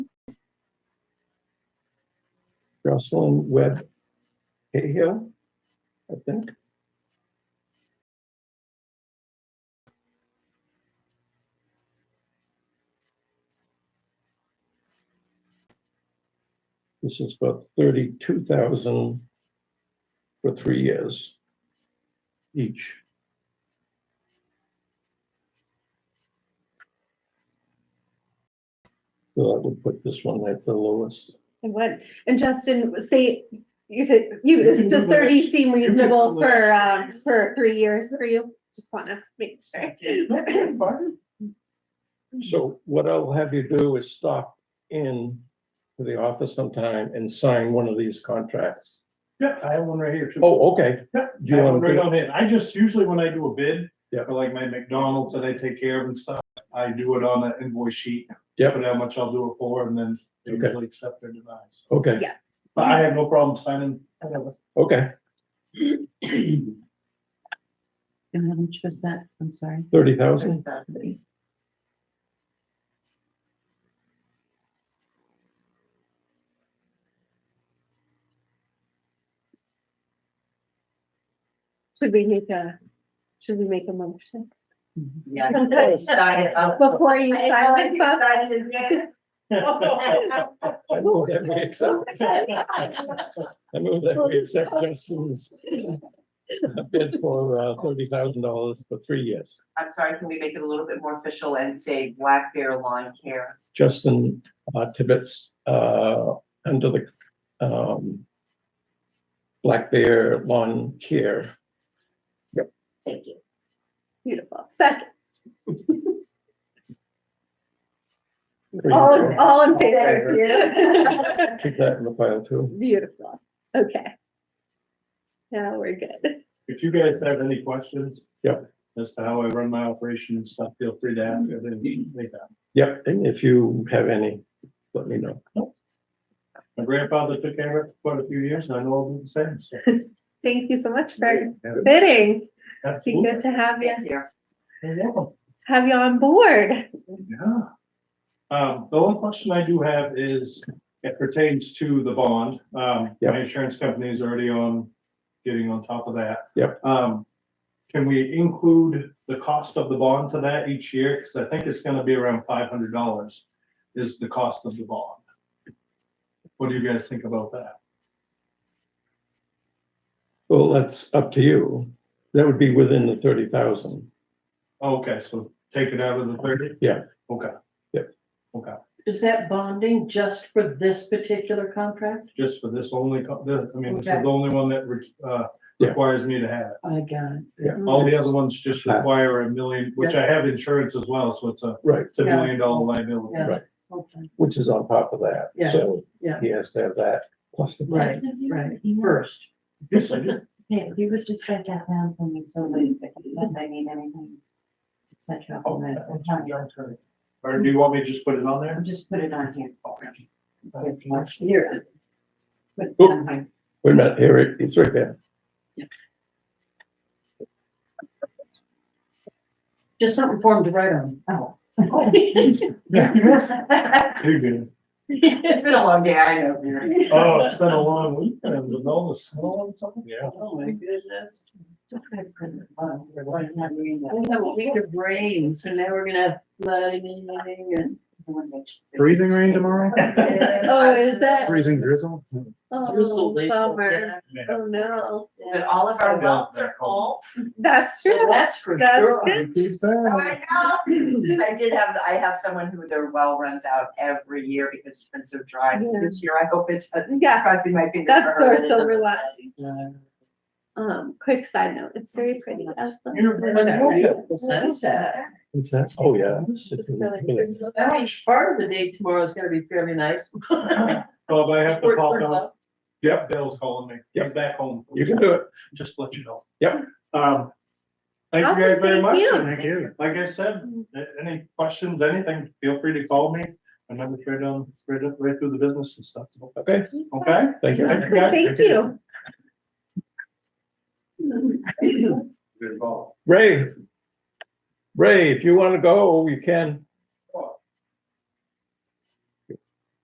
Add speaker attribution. Speaker 1: Jocelyn Webb Cahill, I think. This is about thirty-two thousand for three years each. So I would put this one at the lowest.
Speaker 2: And what, and Justin, say, if it, you, this
Speaker 3: You can
Speaker 2: to
Speaker 3: do the
Speaker 2: thirty
Speaker 3: next-
Speaker 2: seem
Speaker 3: can do
Speaker 2: reasonable
Speaker 3: the
Speaker 2: for,
Speaker 3: next.
Speaker 2: um, for three years for you? Just wanna make sure.
Speaker 1: So what I'll have you do is stop in to the office sometime and sign one of these contracts.
Speaker 3: Yeah, I have one right here too.
Speaker 1: Oh, okay.
Speaker 3: Yeah,
Speaker 1: Do you
Speaker 3: I have
Speaker 1: wanna
Speaker 3: one right
Speaker 1: do-
Speaker 3: on hand. I just, usually when I do a bid,
Speaker 1: Yeah.
Speaker 3: for like my McDonald's that I take care of and stuff, I do it on an invoice sheet.
Speaker 1: Yeah.
Speaker 3: Put how much I'll do it for and then they
Speaker 1: Okay.
Speaker 3: usually accept or deny. So,
Speaker 1: Okay,
Speaker 3: But I have no problem signing.
Speaker 1: okay.
Speaker 4: And how much was that? I'm sorry.
Speaker 1: Thirty thousand?
Speaker 2: Should we make a, should we make a motion?
Speaker 5: Yeah, you gotta start it up.
Speaker 2: Before you silence us?
Speaker 1: I move that we accept, I move that we accept Justin's bid for uh thirty thousand dollars for three years.
Speaker 5: I'm sorry, can we make it a little bit more official and say Black Bear Lawn Care?
Speaker 1: Justin uh, Tibbetts, uh, under the, um, Black Bear Lawn Care.
Speaker 5: Thank you.
Speaker 2: Beautiful. Second, all, in- all in favor?
Speaker 1: Keep that in the file too.
Speaker 2: Beautiful. Okay. Now we're good.
Speaker 3: If you guys have any questions.
Speaker 1: Yeah.
Speaker 3: As to how I run my operation and stuff, feel free to ask. if they- they have.
Speaker 1: Yep, and if you have any, let me know.
Speaker 3: My grandfather took care of it for quite a few years and I know I'll do the same. so.
Speaker 2: Thank you so much for
Speaker 3: Yeah,
Speaker 2: bidding. It's been
Speaker 3: absolutely.
Speaker 2: good to have you,
Speaker 5: Thank you.
Speaker 3: You're welcome.
Speaker 2: have you on board.
Speaker 3: Yeah. Um, the only question I do have is, it pertains to the bond. Um,
Speaker 1: Yep.
Speaker 3: my insurance company is already on, getting on top of that.
Speaker 1: Yep.
Speaker 3: Um, can we include the cost of the bond to that each year? Because I think it's gonna be around five hundred dollars is the cost of the bond. What do you guys think about that?
Speaker 1: Well, that's up to you. That would be within the thirty thousand.
Speaker 3: Okay, so take it out of the thirty?
Speaker 1: Yeah.
Speaker 3: Okay,
Speaker 4: Is that bonding just for this particular contract?
Speaker 3: just for this only, co- the- I mean, this is
Speaker 4: Okay.
Speaker 3: the only one that, re- uh,
Speaker 1: Yeah.
Speaker 3: requires me to have it.
Speaker 4: I got it.
Speaker 3: All the other ones just
Speaker 1: Flat.
Speaker 3: require a million, which I have insurance as well, so it's a,
Speaker 1: Right,
Speaker 3: it's a
Speaker 4: Yeah.
Speaker 3: million dollar liability.
Speaker 4: Yes.
Speaker 1: Right.
Speaker 4: Okay.
Speaker 1: which is on top of that.
Speaker 4: Yeah,
Speaker 1: So
Speaker 4: yeah.
Speaker 1: he has to have that plus the.
Speaker 4: Right, right. First.
Speaker 3: Yes, I do.
Speaker 6: Yeah, if you would just write that down for me, so like, if I need anything, et cetera,
Speaker 3: Oh,
Speaker 6: from it,
Speaker 3: that's
Speaker 6: I'm
Speaker 3: your job, Kurt. Or do you want me to just put it on there?
Speaker 6: fine. just put it on here. Here's
Speaker 3: That's
Speaker 6: my-
Speaker 3: nice.
Speaker 6: Here. Put it
Speaker 4: Oh.
Speaker 6: on here.
Speaker 1: Wait a minute, here, it- it's right there.
Speaker 4: Just something for him to write on.
Speaker 6: Oh.
Speaker 3: You're good.
Speaker 6: It's been a long day, I know. you're right.
Speaker 3: Oh, it's been a long weekend with all the snow and something. Yeah.
Speaker 4: Oh, my goodness.
Speaker 6: Just put it on the bottom, we're like not doing that.
Speaker 4: We have a week of rain, so now we're gonna have flooding and.
Speaker 6: I wanna make sure.
Speaker 7: Freezing rain tomorrow?
Speaker 2: Oh, is that?
Speaker 7: Freezing drizzle?
Speaker 2: Oh,
Speaker 4: drizzle, they-
Speaker 2: bummer. Oh, no.
Speaker 6: But all of our wells are full.
Speaker 2: That's true.
Speaker 4: That's for
Speaker 2: That's
Speaker 4: sure.
Speaker 2: good.
Speaker 7: Keeps
Speaker 6: Oh,
Speaker 7: that.
Speaker 6: I know. I did have, I have someone who their well runs out every year because it's been so dry. So
Speaker 2: Yeah.
Speaker 6: This year, I hope it's, I'm
Speaker 2: Yeah,
Speaker 6: crossing my fingers.
Speaker 2: That's
Speaker 6: for
Speaker 2: our
Speaker 6: her that it
Speaker 2: silver
Speaker 6: doesn't-
Speaker 2: lining. um, quick side note, it's very pretty. out there.
Speaker 3: You're very
Speaker 4: Was it
Speaker 3: good.
Speaker 4: right? The sunset.
Speaker 1: It's that, oh, yeah.
Speaker 2: It's really-
Speaker 4: That means part of the day tomorrow is gonna be fairly nice.
Speaker 3: Bob, I have to
Speaker 4: We're-
Speaker 3: pop
Speaker 4: we're
Speaker 3: out.
Speaker 4: up.
Speaker 3: Yep, Dale's calling me.
Speaker 1: Yep.
Speaker 3: He's back home.
Speaker 1: You can do it.
Speaker 3: Just to let you know.
Speaker 1: Yep.
Speaker 3: Um, thank you
Speaker 2: Awesome,
Speaker 3: guys very
Speaker 2: thank
Speaker 3: much.
Speaker 2: you.
Speaker 3: and
Speaker 7: Thank you.
Speaker 3: Like I said, a- any questions, anything, feel free to call me. I'm gonna try to, right up, right through the business and stuff.
Speaker 1: Okay,
Speaker 3: Okay?
Speaker 1: thank you.
Speaker 3: Thank you, guys.
Speaker 2: Thank you.
Speaker 3: Good call.
Speaker 1: Ray. Ray, if you want to go, you can.